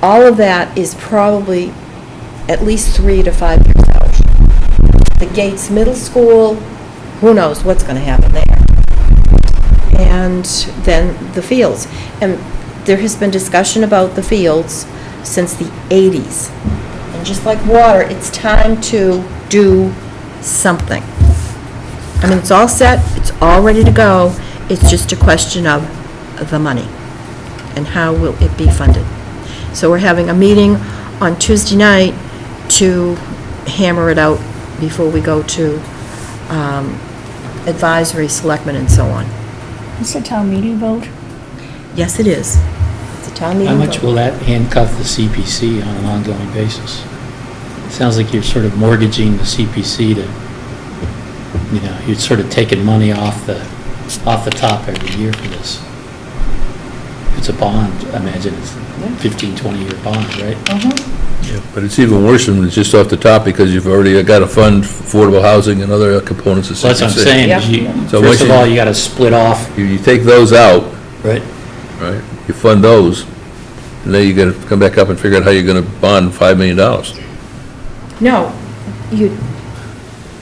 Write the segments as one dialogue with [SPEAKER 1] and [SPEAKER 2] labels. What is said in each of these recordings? [SPEAKER 1] all of that is probably at least three to five years out. The Gates Middle School, who knows what's going to happen there? And then the fields. And there has been discussion about the fields since the 80s. And just like water, it's time to do something. I mean, it's all set, it's all ready to go, it's just a question of the money and how will it be funded. So we're having a meeting on Tuesday night to hammer it out before we go to um, advisory, selectmen, and so on.
[SPEAKER 2] It's a town meeting vote.
[SPEAKER 1] Yes, it is. It's a town meeting.
[SPEAKER 3] How much
[SPEAKER 1] vote.
[SPEAKER 3] will that handcuff the CPC on an ongoing basis? Sounds like you're sort of mortgaging the CPC to, you know, you're sort of taking money off the, off the top every year for this. It's a bond, I imagine, it's
[SPEAKER 1] Yeah. Oh.
[SPEAKER 3] 15, 20-year bond, right?
[SPEAKER 4] Yeah, But it's even worse when it's just off the top, because you've already got to fund affordable housing and other components of
[SPEAKER 3] So that's what I'm saying, is you,
[SPEAKER 4] So
[SPEAKER 3] first of
[SPEAKER 4] what you-
[SPEAKER 3] all, you got to split off.
[SPEAKER 4] You, you take those out,
[SPEAKER 3] Right.
[SPEAKER 4] right, you fund those, and then you got to come back up and figure out how you're going to bond $5 million.
[SPEAKER 1] No, you,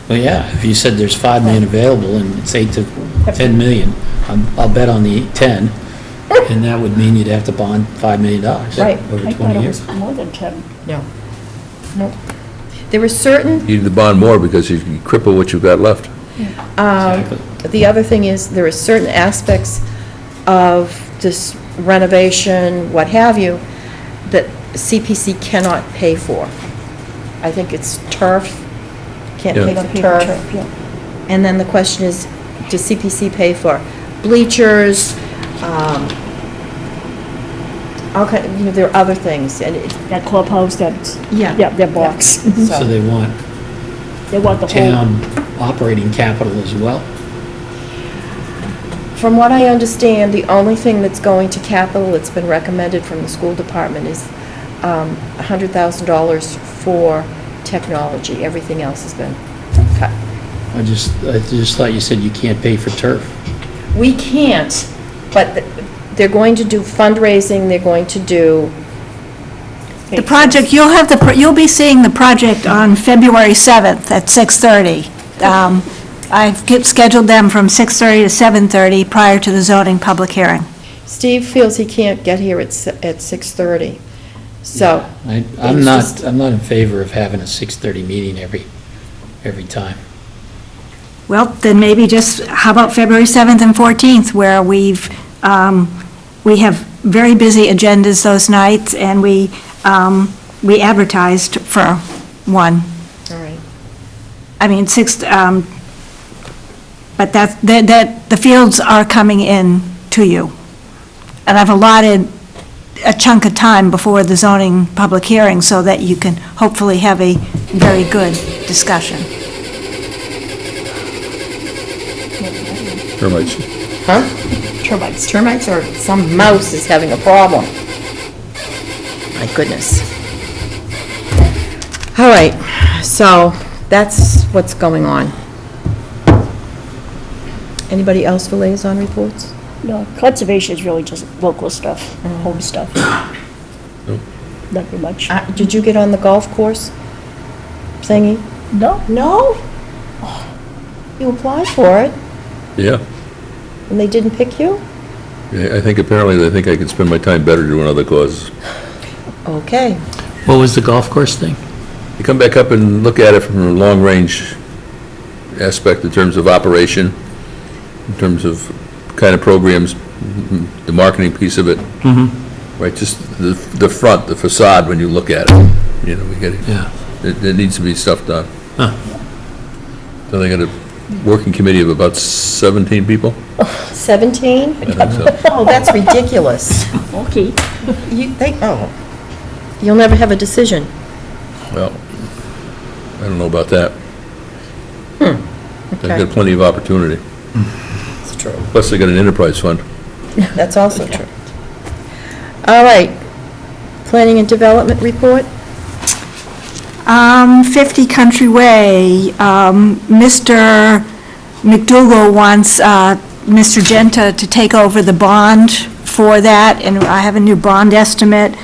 [SPEAKER 3] Well, yeah, if you said there's 5 million available and it's 8 to 10 million, I'm- I'll bet on the 10, and that would mean you'd have to bond $5 million dollars
[SPEAKER 1] Right.
[SPEAKER 3] over
[SPEAKER 2] I thought
[SPEAKER 3] 20
[SPEAKER 2] it
[SPEAKER 3] years.
[SPEAKER 2] was more than 10.
[SPEAKER 1] no, no. There were certain
[SPEAKER 4] You need to bond more because you you cripple what you've got left.
[SPEAKER 3] Exactly.
[SPEAKER 1] Um, The other thing is, there are certain aspects of this renovation, what have you, that CPC cannot pay for. I think it's turf, can't
[SPEAKER 4] Yeah.
[SPEAKER 1] pay
[SPEAKER 2] Paper
[SPEAKER 1] for
[SPEAKER 2] turf,
[SPEAKER 1] turf.
[SPEAKER 2] yeah.
[SPEAKER 1] And then the question is, does CPC pay for bleachers, um, all kind, you know, there are other things, and it,
[SPEAKER 2] That clubhouse, that's,
[SPEAKER 1] Yeah.
[SPEAKER 2] yeah, that box.
[SPEAKER 3] Mm-hmm. So they want
[SPEAKER 2] They want the whole,
[SPEAKER 3] town operating capital as well?
[SPEAKER 1] From what I understand, the only thing that's going to capital that's been recommended from the school department is um, $100,000 for technology. Everything else has been cut.
[SPEAKER 3] I just, I just thought you said you can't pay for turf.
[SPEAKER 1] We can't, but th- they're going to do fundraising, they're going to do,
[SPEAKER 5] The project, you'll have the, pr- you'll be seeing the project on February 7th at 6:30. Um, I've kept- scheduled them from 6:30 to 7:30 prior to the zoning public hearing.
[SPEAKER 1] Steve feels he can't get here at s- at 6:30, so.
[SPEAKER 3] I, I'm
[SPEAKER 1] it's
[SPEAKER 3] not,
[SPEAKER 1] just-
[SPEAKER 3] I'm not in favor of having a 6:30 meeting every, every time.
[SPEAKER 5] Well, then maybe just, how about February 7th and 14th, where we've, um, we have very busy agendas those nights, and we, um, we advertised for one.
[SPEAKER 1] All right.
[SPEAKER 5] I mean, six, um, but that, that- that, the fields are coming in to you. And I've allotted a chunk of time before the zoning public hearing so that you can hopefully have a very good discussion.
[SPEAKER 4] Termites.
[SPEAKER 1] Huh?
[SPEAKER 2] termites.
[SPEAKER 1] Termites or some mouse is having a problem. My goodness. All right, so that's what's going on. Anybody else for liaison reports?
[SPEAKER 2] No, conservation is really just local stuff, home stuff. Not very much.
[SPEAKER 1] Uh, Did you get on the golf course thingy?
[SPEAKER 2] No,
[SPEAKER 1] No? Oh, You applied for it,
[SPEAKER 4] Yeah,
[SPEAKER 1] and they didn't pick you?
[SPEAKER 4] I I think apparently, they think I can spend my time better doing other causes.
[SPEAKER 1] Okay.
[SPEAKER 3] What was the golf course thing?
[SPEAKER 4] You come back up and look at it from a long-range aspect in terms of operation, in terms of kind of programs, mm, the marketing piece of it.
[SPEAKER 3] Mm-hmm.
[SPEAKER 4] Right, just the, the front, the facade, when you look at it, you know, we get it.
[SPEAKER 3] Yeah.
[SPEAKER 4] There, there needs to be stuff done.
[SPEAKER 3] Huh.
[SPEAKER 4] So they got a working committee of about 17 people?
[SPEAKER 1] 17?
[SPEAKER 4] I think so.
[SPEAKER 1] Oh, that's ridiculous.
[SPEAKER 2] okay.
[SPEAKER 1] You think, oh, you'll never have a decision.
[SPEAKER 4] Well, I don't know about that. They've
[SPEAKER 1] Hmm, Okay.
[SPEAKER 4] got plenty of opportunity.
[SPEAKER 1] It's true.
[SPEAKER 4] Plus, they got an enterprise fund.
[SPEAKER 1] That's also true. All right. Planning and development report?
[SPEAKER 5] Um, 50 Country Way, um, Mr. McDougal wants, uh, Mr. Genta to take over the bond for that, and I have a new bond estimate,